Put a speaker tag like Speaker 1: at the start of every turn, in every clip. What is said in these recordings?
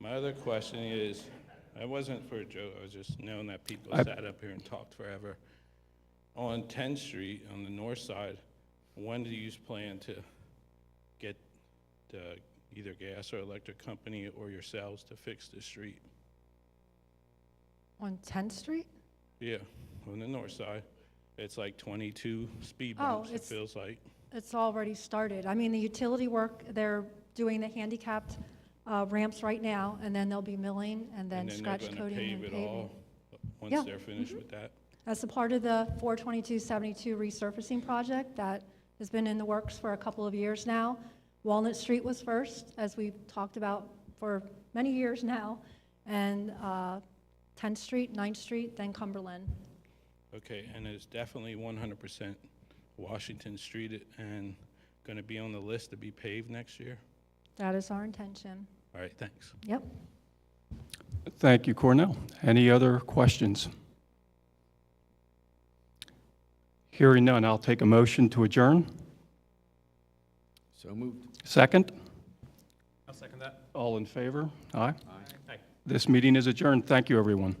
Speaker 1: My other question is, I wasn't for a joke, I was just knowing that people
Speaker 2: I-
Speaker 1: sat up here and talked forever. On 10th Street, on the north side, when do you plan to get the, either gas or electric company or yourselves to fix the street?
Speaker 3: On 10th Street?
Speaker 1: Yeah, on the north side. It's like 22 speed
Speaker 3: Oh,
Speaker 1: bumps, it
Speaker 3: it's-
Speaker 1: feels like.
Speaker 3: It's already started. I mean, the utility work, they're doing the handicapped uh, ramps right now, and then they'll be milling and then scratch
Speaker 1: they're gonna
Speaker 3: coating
Speaker 1: pave
Speaker 3: and
Speaker 1: it
Speaker 3: paving.
Speaker 1: all Once
Speaker 3: Yeah, mm-hmm.
Speaker 1: they're finished with that.
Speaker 3: That's a part of the 42272 resurfacing project that has been in the works for a couple of years now. Walnut Street was first, as we've talked about for many years now, and uh, 10th Street, 9th Street, then Cumberland.
Speaker 1: Okay, and it's definitely 100% Washington Street and going to be on the list to be paved next year?
Speaker 3: That is our intention.
Speaker 1: All right, thanks.
Speaker 3: Yep.
Speaker 2: Thank you, Cornell. Any other questions? Hearing none, I'll take a motion to adjourn.
Speaker 4: So moved.
Speaker 2: 2nd
Speaker 5: I'll second that.
Speaker 2: All in favor? Aye.
Speaker 5: Aye.
Speaker 2: This meeting is adjourned. Thank you, everyone.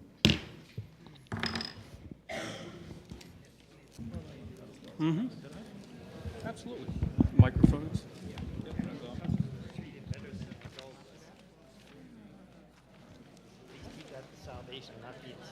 Speaker 2: Mhm.
Speaker 1: Absolutely.
Speaker 2: Microphones?
Speaker 6: Please keep that salvation, not the